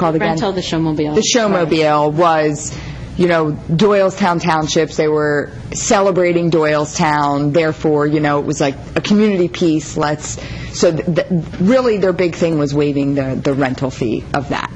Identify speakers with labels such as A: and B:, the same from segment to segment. A: called again?
B: Rental the showmobile.
A: The Showmobile was, you know, Doylestown Townships, they were celebrating Doylestown, therefore, you know, it was like a community piece, let's, so th- th- really, their big thing was waiving the the rental fee of that.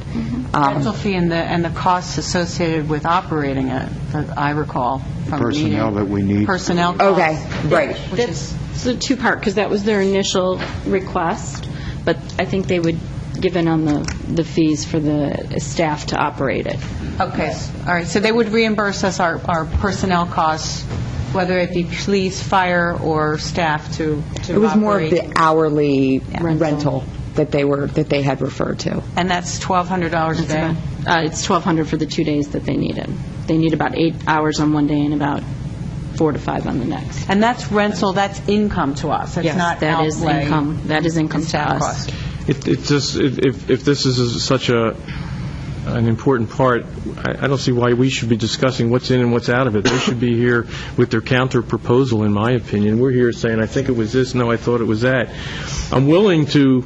A: Um,
C: Rental fee and the, and the costs associated with operating it, that I recall from the meeting.
D: Personnel that we need.
C: Personnel costs.
A: Okay, right.
C: Which
B: That's
C: is,
B: the two-part, because that was their initial request, but I think they would give in on the, the fees for the staff to operate it.
C: okay, s- all right, so they would reimburse us our, our personnel costs, whether it be police, fire, or staff to, to
A: It was more of
C: operate.
A: the hourly
B: Rental.
A: rental that they were, that they had referred to.
C: And that's $1,200 a day?
B: Uh, It's 1,200 for the two days that they needed. They need about eight hours on one day and about four to five on the next.
C: And that's rental, that's income to us, that's
B: Yes,
C: not outlay.
B: That is income, that is income to
C: staff
B: us.
C: cost.
E: It, it just, if, if- if this is such a, an important part, I, I don't see why we should be discussing what's in and what's out of it. They should be here with their counter proposal, in my opinion. We're here saying, I think it was this, no, I thought it was that. I'm willing to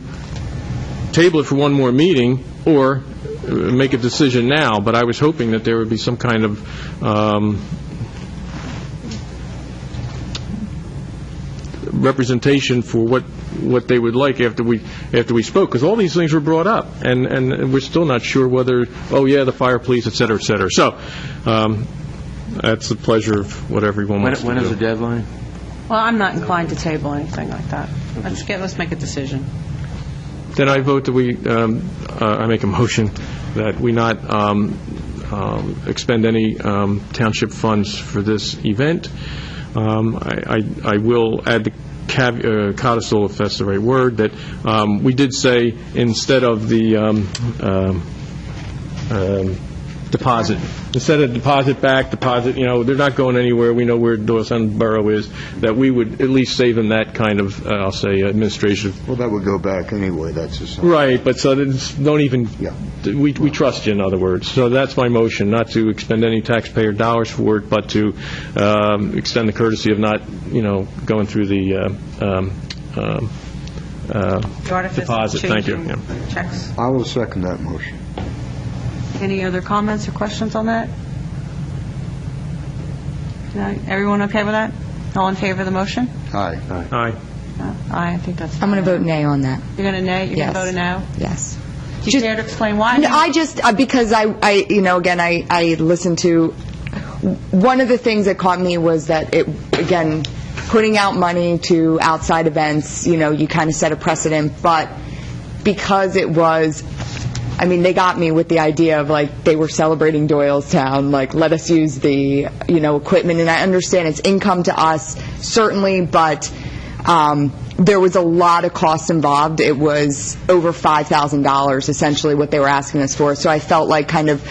E: table it for one more meeting, or uh, make a decision now, but I was hoping that there would be some kind of, um, representation for what, what they would like after we, after we spoke, because all these things were brought up, and, and we're still not sure whether, oh, yeah, the fire, police, et cetera, et cetera. So, um, that's the pleasure of what everyone
F: When
E: wants to do.
F: when is the deadline?
C: Well, I'm not inclined to table anything like that. Let's get, let's make a decision.
E: Then I vote that we, um, uh, I make a motion that we not um, um, expend any um, township funds for this event. Um, I I- I will add the cav- uh, codicil, if that's the right word, that um, we did say, instead of the um, um, um, deposit, instead of deposit back, deposit, you know, they're not going anywhere, we know where Doylestown Borough is, that we would at least save them that kind of, uh, I'll say, administrative
D: Well, that would go back anyway, that's just...
E: Right, but so it's, don't even,
D: Yeah.
E: we, we trust you, in other words. So that's my motion, not to expend any taxpayer dollars for it, but to um, extend the courtesy of not, you know, going through the uh, um, um, uh,
C: The artifice of
E: deposit. Thank you.
C: changing
E: Yeah.
C: Checks.
D: I will second that motion.
C: Any other comments or questions on that? No? Everyone okay with that? All in favor of the motion?
D: Aye.
E: Aye.
C: No? Aye, I think that's...
A: I'm going to vote nay on that,
C: You're going to nay? You're going
A: yes.
C: to vote a no?
A: Yes.
C: Do you
A: Just-
C: care to explain why?
A: No, I just, uh, because I, I, you know, again, I, I listened to, one of the things that caught me was that it, again, putting out money to outside events, you know, you kind of set a precedent, but because it was, I mean, they got me with the idea of like, they were celebrating Doylestown, like, let us use the, you know, equipment, and I understand it's income to us, certainly, but, um, there was a lot of cost involved. It was over $5,000 essentially what they were asking us for. So I felt like kind of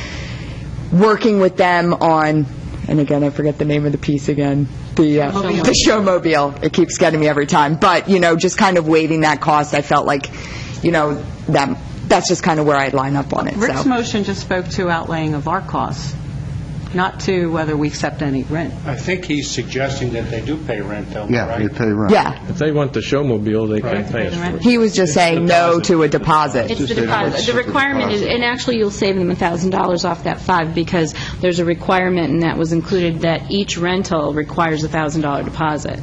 A: working with them on, and again, I forget the name of the piece again, the, uh, the showmobile. It keeps getting me every time. But, you know, just kind of waiving that cost, I felt like, you know, that, that's just kind of where I'd line up on it, so.
C: Rick's motion just spoke to outlaying of our costs, not to whether we accept any rent.
G: I think he's suggesting that they do pay rent, though, right?
D: Yeah, you pay rent.
A: Yeah,
E: If they want the showmobile, they can pay us for it.
A: he was just saying no to a deposit.
B: It's the
D: Just a
B: deposit. The
D: deposit.
B: requirement is, and actually, you'll save them $1,000 off that five, because there's a requirement, and that was included, that each rental requires a $1,000 deposit.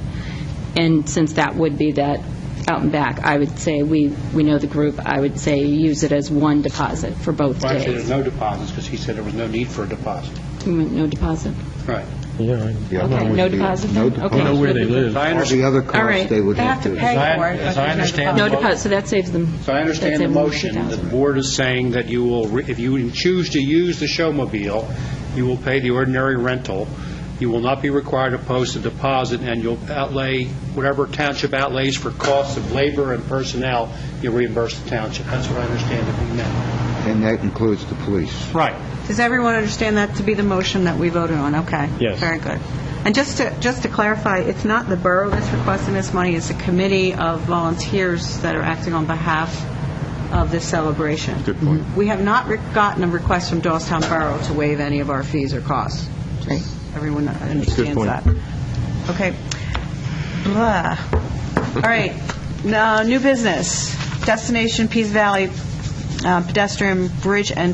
B: And since that would be that out and back, I would say, we, we know the group, I would say, use it as one deposit for both
G: Well, Actually, there's
B: days.
G: no deposits, because he said there was no need for a deposit.
B: Mm, No deposit?
G: Right.
E: Yeah,
D: Yeah,
B: Okay,
D: I'm with
B: no
D: you.
B: deposit
D: No
B: then? Okay.
E: I know
D: deposit.
E: where they live.
G: I
D: All the
G: understand,
D: other
B: All
D: costs
B: right.
D: they would
C: They have
D: have
C: to
D: to...
C: pay
G: I-
C: for it.
G: as
C: but
G: I
C: there's
G: understand
B: No
G: Well,
B: deposit, so that saves them.
G: so I understand the motion, the board is saying that you will, re- if you choose to use the showmobile, you will pay the ordinary rental, you will not be required to post a deposit, and you'll outlay, whatever township outlays for costs of labor and personnel, you reimburse the township. That's what I understand it being meant.
D: And that includes the police.
G: Right.
C: Does everyone understand that to be the motion that we voted on? Okay.
E: Yes.
C: Very good. And just to, just to clarify, it's not the borough that's requesting this money, it's a committee of volunteers that are acting on behalf of this celebration. Good point. We have not re- gotten a request from Doylestown Borough to waive any of our fees or costs. Just Everyone understands
E: point.
C: that. Okay. Blah. All right. Now, New business, Destination Peace Valley uh, pedestrian bridge and